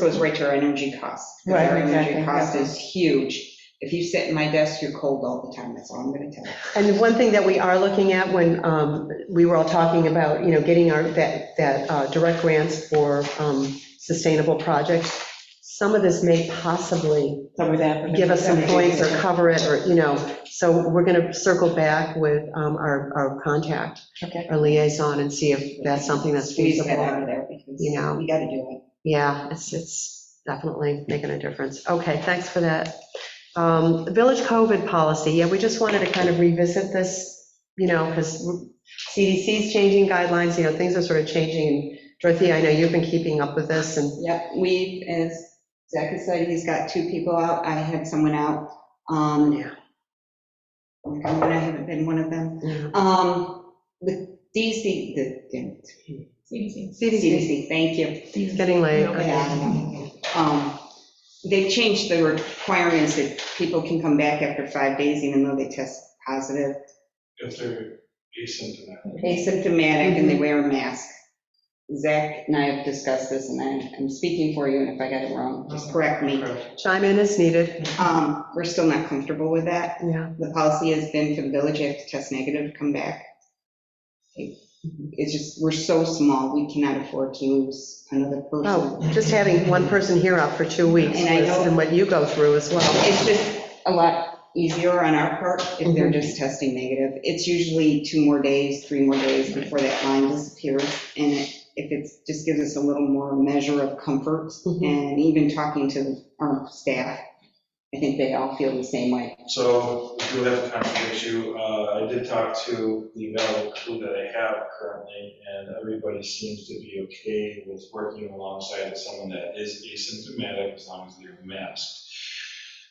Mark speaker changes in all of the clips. Speaker 1: goes right to our energy costs. 'cause
Speaker 2: Right,
Speaker 1: Our energy
Speaker 2: exactly,
Speaker 1: cost
Speaker 2: yeah.
Speaker 1: is huge. If you sit in my desk, you're cold all the time, that's all I'm gonna tell you.
Speaker 3: And the one thing that we are looking at when um, we were all talking about, you know, getting our, that, that uh, direct grants for um, sustainable projects, some of this may possibly
Speaker 2: Cover that.
Speaker 3: give us some points or cover it, or, you know, so we're going to circle back with um, our, our contact,
Speaker 2: Okay.
Speaker 3: our liaison, and see if that's something that's
Speaker 1: We need to get
Speaker 3: feasible.
Speaker 1: out of there because
Speaker 3: You know.
Speaker 1: we gotta do
Speaker 3: Yeah, it's, it's definitely making a difference. Okay, thanks for that. Um, the Village COVID policy, yeah, we just wanted to kind of revisit this, you know, because CDC's changing guidelines, you know, things are sort of changing. Dorothea, I know you've been keeping up with this and,
Speaker 1: it. Yep, we, as Zach has said, he's got two people out, I had someone out. Um,
Speaker 3: Yeah.
Speaker 1: oh my God, I haven't been one of them.
Speaker 3: you know,
Speaker 1: Um, the DC, the
Speaker 4: CDC.
Speaker 1: CDC, thank you.
Speaker 3: it's getting late. okay.
Speaker 1: Yeah. Um, They changed the requirements that people can come back after five days even though they test positive,
Speaker 5: if they're asymptomatic.
Speaker 1: asymptomatic, and they wear a mask. Zach and I have discussed this, and I- I'm speaking for you, and if I got it wrong, just correct me.
Speaker 3: Chime in as needed,
Speaker 1: Um, We're still not comfortable with that.
Speaker 3: yeah.
Speaker 1: The policy has been for the village, you have to test negative, to come back. It- It's just, we're so small, we cannot afford to lose another person.
Speaker 3: Oh, just having one person here out for two weeks
Speaker 1: And I
Speaker 3: was-
Speaker 1: know-
Speaker 3: and what you go through as well.
Speaker 1: It's just a lot easier on our part if they're
Speaker 3: Mhm.
Speaker 1: just testing negative. It's usually two more days, three more days before that line disappears. And it- if it's, just gives us a little more measure of comfort
Speaker 3: Mhm.
Speaker 1: and even talking to our staff, I think they all feel the same way.
Speaker 5: So we do have a conflict issue. Uh, I did talk to the available crew that I have currently, and everybody seems to be okay with working alongside someone that is asymptomatic as long as they're masked.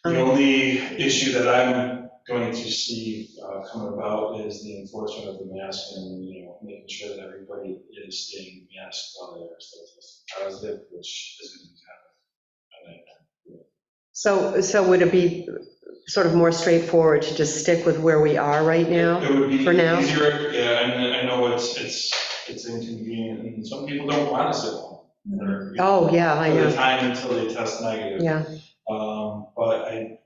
Speaker 5: The only issue that I'm going to see uh, come about is the enforcement of the mask and, you know, making sure that everybody is staying masked while they're still testing positive, which is going to be kind of a nightmare.
Speaker 3: So, so would it be sort of more straightforward to just stick with where we are right now?
Speaker 5: It would be
Speaker 3: for now?
Speaker 5: easier, yeah, and I know it's, it's, it's inconvenient, and some people don't want to sit home. or, you know,
Speaker 3: Oh, yeah, I
Speaker 5: For the
Speaker 3: know,
Speaker 5: time until they test negative.
Speaker 3: yeah.
Speaker 5: Um, but I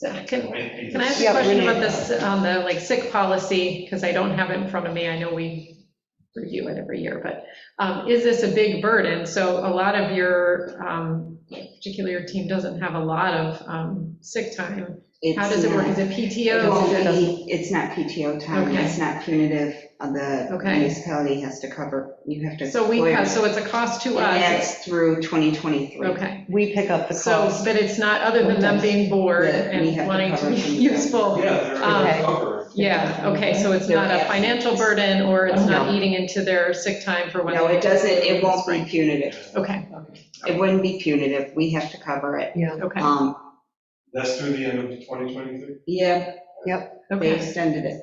Speaker 4: So Uh, Can
Speaker 5: might be.
Speaker 4: can I ask a
Speaker 3: Yeah,
Speaker 4: question
Speaker 3: Renee.
Speaker 4: about this, on the like sick policy? Because I don't have it in front of me. I know we review it every year, but um, is this a big burden? So a lot of your, um, particularly your team doesn't have a lot of um, sick time. How does it work? Is it
Speaker 1: It's not-
Speaker 4: PTO?
Speaker 1: it
Speaker 4: Is it-
Speaker 1: won't be- It's not PTO time,
Speaker 4: Okay.
Speaker 1: it's not punitive, Uh, the
Speaker 4: Okay.
Speaker 1: municipality has to cover, you have to.
Speaker 4: So we, have- so it's a cost to
Speaker 1: And
Speaker 4: us.
Speaker 1: that's through 2023.
Speaker 4: Okay,
Speaker 3: We pick up the
Speaker 4: so,
Speaker 3: cost.
Speaker 4: but it's not, other than them being bored
Speaker 1: Yeah, we have
Speaker 4: and
Speaker 1: to
Speaker 4: wanting to
Speaker 1: cover
Speaker 4: be
Speaker 1: some of that.
Speaker 4: useful,
Speaker 5: Yeah, they're
Speaker 4: Um,
Speaker 5: covered.
Speaker 4: Yeah, okay, so it's not a financial burden, or it's not eating into their sick time for when.
Speaker 1: No,
Speaker 4: they-
Speaker 1: it doesn't, it won't be punitive.
Speaker 4: Okay,
Speaker 1: It wouldn't be punitive, we have to cover it.
Speaker 4: okay,
Speaker 1: Um,
Speaker 5: That's through the end of 2023?
Speaker 1: Yeah, they
Speaker 4: okay.
Speaker 1: extended it.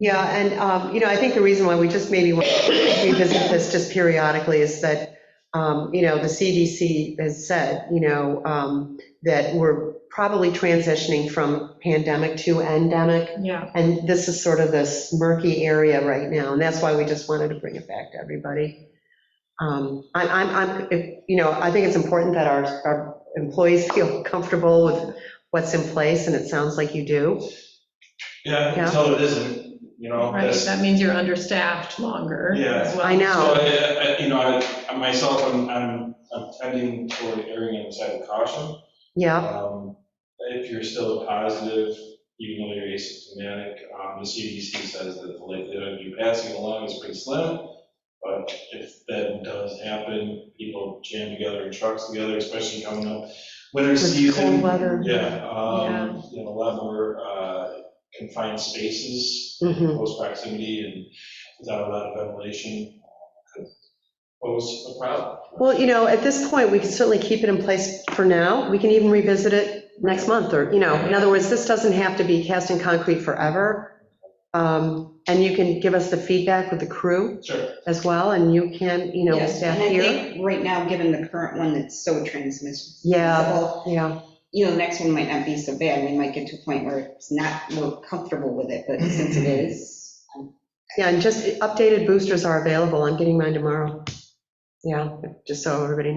Speaker 3: Yeah, and, um, you know, I think the reason why we just maybe want to revisit this just periodically is that, um, you know, the CDC has said, you know, um, that we're probably transitioning from pandemic to endemic,
Speaker 4: Yeah,
Speaker 3: and this is sort of this murky area right now, and that's why we just wanted to bring it back to everybody. Um, I- I'm, I'm, if- you know, I think it's important that our, our employees feel comfortable with what's in place, and it sounds like you do.
Speaker 5: Yeah,
Speaker 3: Yeah.
Speaker 5: until it isn't, you know,
Speaker 4: right,
Speaker 5: that's,
Speaker 4: that means you're understaffed longer
Speaker 5: Yeah.
Speaker 4: as well.
Speaker 3: I know.
Speaker 5: So, I- I- you know, I- I, myself, I'm, I'm I'm tending toward erring on the side of caution.
Speaker 3: Yeah,
Speaker 5: Um, If you're still positive, even though you're asymptomatic, um, the CDC says that the likelihood of you passing it along is pretty slim. But if that does happen, people jam together in trucks together, especially coming up winter
Speaker 3: with cold
Speaker 5: season.
Speaker 3: weather.
Speaker 5: Yeah,
Speaker 4: Yeah.
Speaker 5: um, you know, a lot more uh, confined spaces,
Speaker 1: Mm-hmm.
Speaker 3: Mhm.
Speaker 5: close proximity and without a lot of ventilation uh, could pose a problem.
Speaker 3: Well, you know, at this point, we can certainly keep it in place for now. We can even revisit it next month, or, you know, in other words, this doesn't have to be cast in concrete forever. Um, And you can give us the feedback with the crew
Speaker 5: Sure.
Speaker 3: as well, and you can, you know,
Speaker 1: Yes,
Speaker 3: staff
Speaker 1: and I
Speaker 3: here.
Speaker 1: think Right now, given the current one that's so transmissible.
Speaker 3: Yeah. Yeah,
Speaker 1: You know, the next one might not be so bad, we might get to a point where it's not, we're comfortable with it, but since it is,
Speaker 3: yeah, and just updated boosters are available. I'm getting mine tomorrow. Yeah, just so everybody